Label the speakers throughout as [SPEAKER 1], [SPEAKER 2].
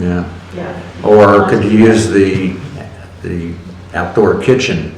[SPEAKER 1] yeah.
[SPEAKER 2] yeah.
[SPEAKER 1] Or could you use the, the outdoor kitchen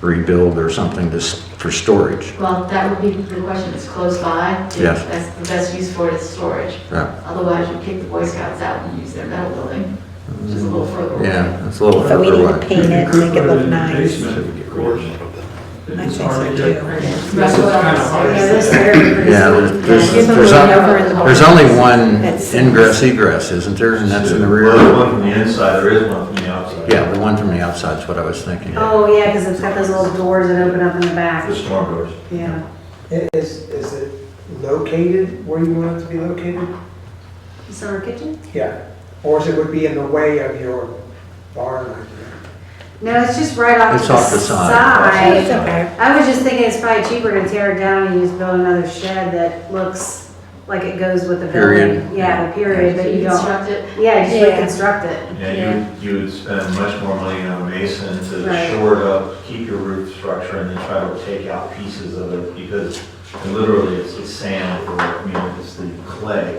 [SPEAKER 1] rebuild or something to, s- for storage?
[SPEAKER 2] Well, that would be the question, it's close by. the-
[SPEAKER 1] Yes.
[SPEAKER 2] That's the best use for it is storage.
[SPEAKER 1] Yeah,
[SPEAKER 2] Otherwise, you kick the Boy Scouts out and use their metal building, which is a little further away.
[SPEAKER 1] yeah, that's a little
[SPEAKER 3] But we
[SPEAKER 1] further
[SPEAKER 3] need to
[SPEAKER 1] away.
[SPEAKER 3] paint it, make it look nice.
[SPEAKER 4] You could put it in the basement, of course.
[SPEAKER 3] I
[SPEAKER 4] It's
[SPEAKER 3] think so,
[SPEAKER 4] already-
[SPEAKER 3] too.
[SPEAKER 4] This is kind of hard.
[SPEAKER 2] Yeah, this
[SPEAKER 1] Yeah, there's,
[SPEAKER 3] Yeah, give them
[SPEAKER 1] there's,
[SPEAKER 3] a
[SPEAKER 1] on-
[SPEAKER 3] over in the-
[SPEAKER 1] there's only one
[SPEAKER 3] That's-
[SPEAKER 1] ingress egress, isn't there? And that's in the rear?
[SPEAKER 5] There's one from the inside, there is one from the outside.
[SPEAKER 1] Yeah, the one from the outside's what I was thinking.
[SPEAKER 6] Oh, yeah, because it's got those little doors that open up in the
[SPEAKER 5] The
[SPEAKER 6] back.
[SPEAKER 5] storm doors.
[SPEAKER 6] Yeah.
[SPEAKER 7] Is, is it located where you want it to be located?
[SPEAKER 6] Summer kitchen?
[SPEAKER 7] Yeah. Or is it would be in the way of your barn? I think?
[SPEAKER 6] No, it's just right off
[SPEAKER 1] It's
[SPEAKER 6] to the
[SPEAKER 1] off the side.
[SPEAKER 3] It's
[SPEAKER 6] side.
[SPEAKER 3] okay.
[SPEAKER 6] I was just thinking it's probably cheaper to tear it down and just build another shed that looks like it goes with the
[SPEAKER 1] Period.
[SPEAKER 6] building. Yeah, the period, but you don't,
[SPEAKER 2] construct it,
[SPEAKER 6] yeah, just
[SPEAKER 3] Yeah.
[SPEAKER 6] reconstruct it.
[SPEAKER 5] Yeah, you, you would spend much more money on a mason to
[SPEAKER 6] Right.
[SPEAKER 5] shore it up, keep your roof structure, and then try to take out pieces of it, because literally it's it's sand, or, you know, it's the clay,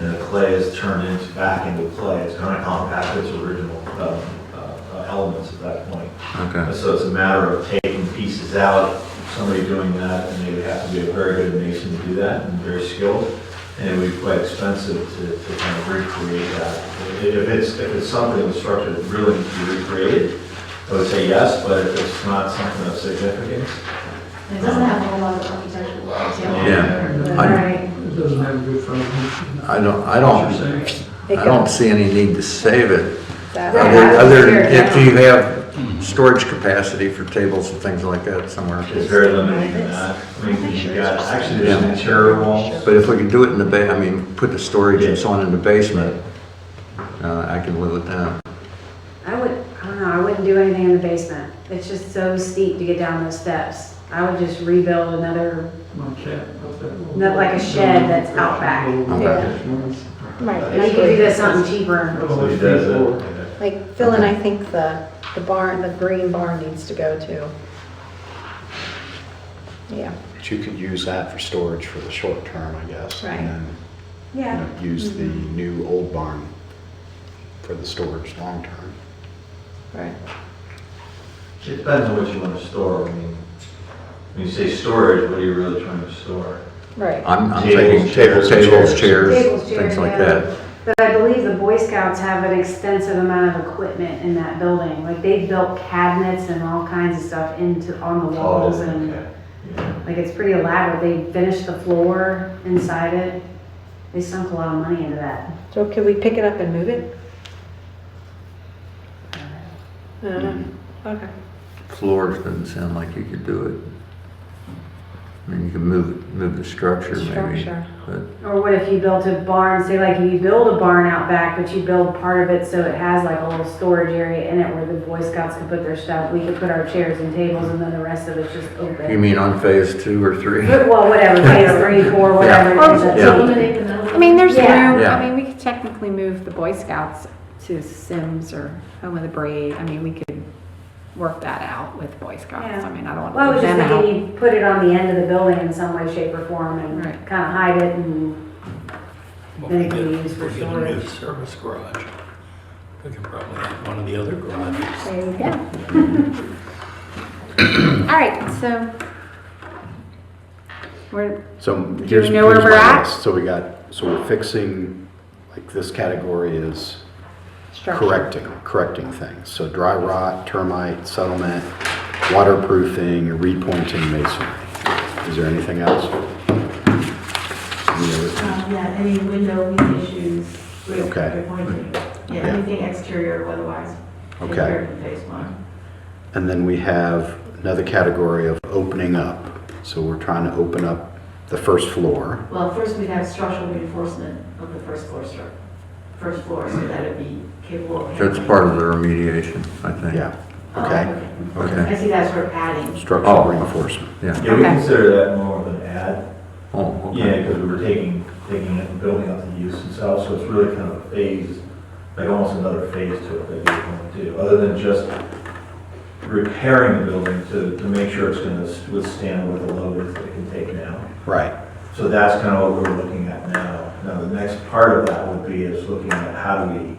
[SPEAKER 5] and the clay is turned into, back into clay, it's kind of compacted its original, um, uh, uh, elements at that point.
[SPEAKER 3] Oh.
[SPEAKER 1] Okay,
[SPEAKER 5] So it's a matter of taking pieces out, somebody doing that, and they would have to be a very good mason to do that, and very skilled. And it would be quite expensive to, to kind of recreate that. If if it's, if it's something that's structured that really needs to be recreated, I would say yes, but if it's not something of significance, um,
[SPEAKER 2] it doesn't have a whole lot of architectural detail.
[SPEAKER 1] Yeah.
[SPEAKER 6] Right.
[SPEAKER 4] It doesn't have a good foundation.
[SPEAKER 1] I don't, I
[SPEAKER 4] What
[SPEAKER 1] don't,
[SPEAKER 4] you're saying.
[SPEAKER 1] I don't see any need to save it.
[SPEAKER 3] That-
[SPEAKER 6] Yeah,
[SPEAKER 1] Other,
[SPEAKER 6] I would
[SPEAKER 1] other,
[SPEAKER 6] figure it
[SPEAKER 1] if
[SPEAKER 6] out.
[SPEAKER 1] you have storage capacity for tables and things like that somewhere.
[SPEAKER 5] it's very limited in that. I mean, you've got, actually, there's an interior wall.
[SPEAKER 1] But if we could do it in the ba, I mean, put the storage and so on in the basement, uh, I can live with that.
[SPEAKER 6] I would, I don't know, I wouldn't do anything in the basement. It's just so steep to get down those steps. I would just rebuild another,
[SPEAKER 4] Like that, up that little-
[SPEAKER 6] Not like a shed that's out back.
[SPEAKER 4] Little-
[SPEAKER 3] Yeah. Right,
[SPEAKER 6] and you could do that something cheaper.
[SPEAKER 5] So he does it.
[SPEAKER 3] Like, Phil and I think the, the barn, the green barn needs to go too. Yeah,
[SPEAKER 8] But you could use that for storage for the short term, I guess.
[SPEAKER 3] Right.
[SPEAKER 8] And then, you
[SPEAKER 6] Yeah. Mm-hmm.
[SPEAKER 8] know, use the new old barn for the storage long term.
[SPEAKER 3] right.
[SPEAKER 5] It depends on what you want to store. I mean, when you say storage, what are you really trying to store?
[SPEAKER 3] Right.
[SPEAKER 1] I'm, I'm
[SPEAKER 5] Tables,
[SPEAKER 1] thinking tables,
[SPEAKER 8] chairs, and
[SPEAKER 1] tables,
[SPEAKER 8] chairs.
[SPEAKER 1] chairs,
[SPEAKER 6] Tables,
[SPEAKER 1] things
[SPEAKER 6] chairs,
[SPEAKER 1] like
[SPEAKER 6] yeah.
[SPEAKER 1] that.
[SPEAKER 6] But I believe the Boy Scouts have an extensive amount of equipment in that building. Like they built cabinets and all kinds of stuff into, on
[SPEAKER 1] Oh,
[SPEAKER 6] the walls and
[SPEAKER 5] Oh, Okay. Yeah.
[SPEAKER 6] like it's pretty elaborate. They finished the floor inside it. They sunk a lot of money into that.
[SPEAKER 3] So could we pick it up and move it? I don't know. Uh, Okay.
[SPEAKER 1] Floors doesn't sound like you could do it. I mean, you can move, move the structure maybe.
[SPEAKER 3] Structure.
[SPEAKER 1] but-
[SPEAKER 6] Or what if you built a barn, say like you build a barn out back, but you build part of it so it has like a little storage area in it where the Boy Scouts can put their stuff. We could put our chairs and tables and then the rest of it's just
[SPEAKER 1] You
[SPEAKER 6] open.
[SPEAKER 1] mean on phase two or three?
[SPEAKER 6] Well, whatever, phase three, four, whatever. it is.
[SPEAKER 2] Or
[SPEAKER 1] Yeah.
[SPEAKER 2] to eliminate the metal.
[SPEAKER 9] I mean, there's room,
[SPEAKER 6] Yeah.
[SPEAKER 9] I mean, we could technically move the Boy Scouts to Sims or Home of the Brave. I mean, we could work that out with Boy Scouts.
[SPEAKER 6] Yeah.
[SPEAKER 9] I mean, I don't
[SPEAKER 6] Well, I
[SPEAKER 9] want
[SPEAKER 6] was
[SPEAKER 9] to
[SPEAKER 6] just
[SPEAKER 9] leave them out.
[SPEAKER 6] thinking you put it on the end of the building in some way, shape, or form and
[SPEAKER 9] Right.
[SPEAKER 6] kind of hide it and
[SPEAKER 4] Well,
[SPEAKER 6] then
[SPEAKER 4] we
[SPEAKER 6] it can be
[SPEAKER 4] get,
[SPEAKER 6] used for
[SPEAKER 4] we get a new
[SPEAKER 6] storage.
[SPEAKER 4] service garage. We could probably have one of the other garages.
[SPEAKER 9] There you go. All right, so we're,
[SPEAKER 8] So
[SPEAKER 9] you
[SPEAKER 8] here's.
[SPEAKER 9] know where
[SPEAKER 8] here's
[SPEAKER 9] we're
[SPEAKER 8] my
[SPEAKER 9] at?
[SPEAKER 8] list. So we got, so we're fixing, like this category is
[SPEAKER 3] Structure.
[SPEAKER 8] correcting, correcting things. So dry rot, termite, settlement, waterproofing, repointing masonry. Is there anything else? Any other-
[SPEAKER 2] Um, Yeah, any window leak issues, with
[SPEAKER 8] Okay.
[SPEAKER 2] repointing. yeah,
[SPEAKER 8] Yeah.
[SPEAKER 2] anything exterior or otherwise.
[SPEAKER 8] Okay.
[SPEAKER 2] compared to Phase one.
[SPEAKER 8] And then we have another category of opening up. So we're trying to open up the first floor.
[SPEAKER 2] Well, first we'd have structural reinforcement of the first floor stru, first floor, so that it'd be capable of.
[SPEAKER 1] That's part of the remediation, I think.
[SPEAKER 8] Yeah,
[SPEAKER 2] Oh,
[SPEAKER 8] okay,
[SPEAKER 1] Okay.
[SPEAKER 2] I see that's for padding.
[SPEAKER 8] structural
[SPEAKER 1] Oh.
[SPEAKER 8] reinforcement.
[SPEAKER 1] Yeah.
[SPEAKER 5] Yeah, we
[SPEAKER 9] Okay.
[SPEAKER 5] consider that more of an ad.
[SPEAKER 1] Oh,
[SPEAKER 5] Yeah,
[SPEAKER 1] okay.
[SPEAKER 5] because we were taking, taking it and building up the use itself, so it's really kind of a phase, like almost another phase to it that you're going to do, other than just repairing the building to, to make sure it's going to withstand what the load is that it can take now.
[SPEAKER 8] Right.
[SPEAKER 5] So that's kind of what we're looking at now. Now, the next part of that would be is looking at how do we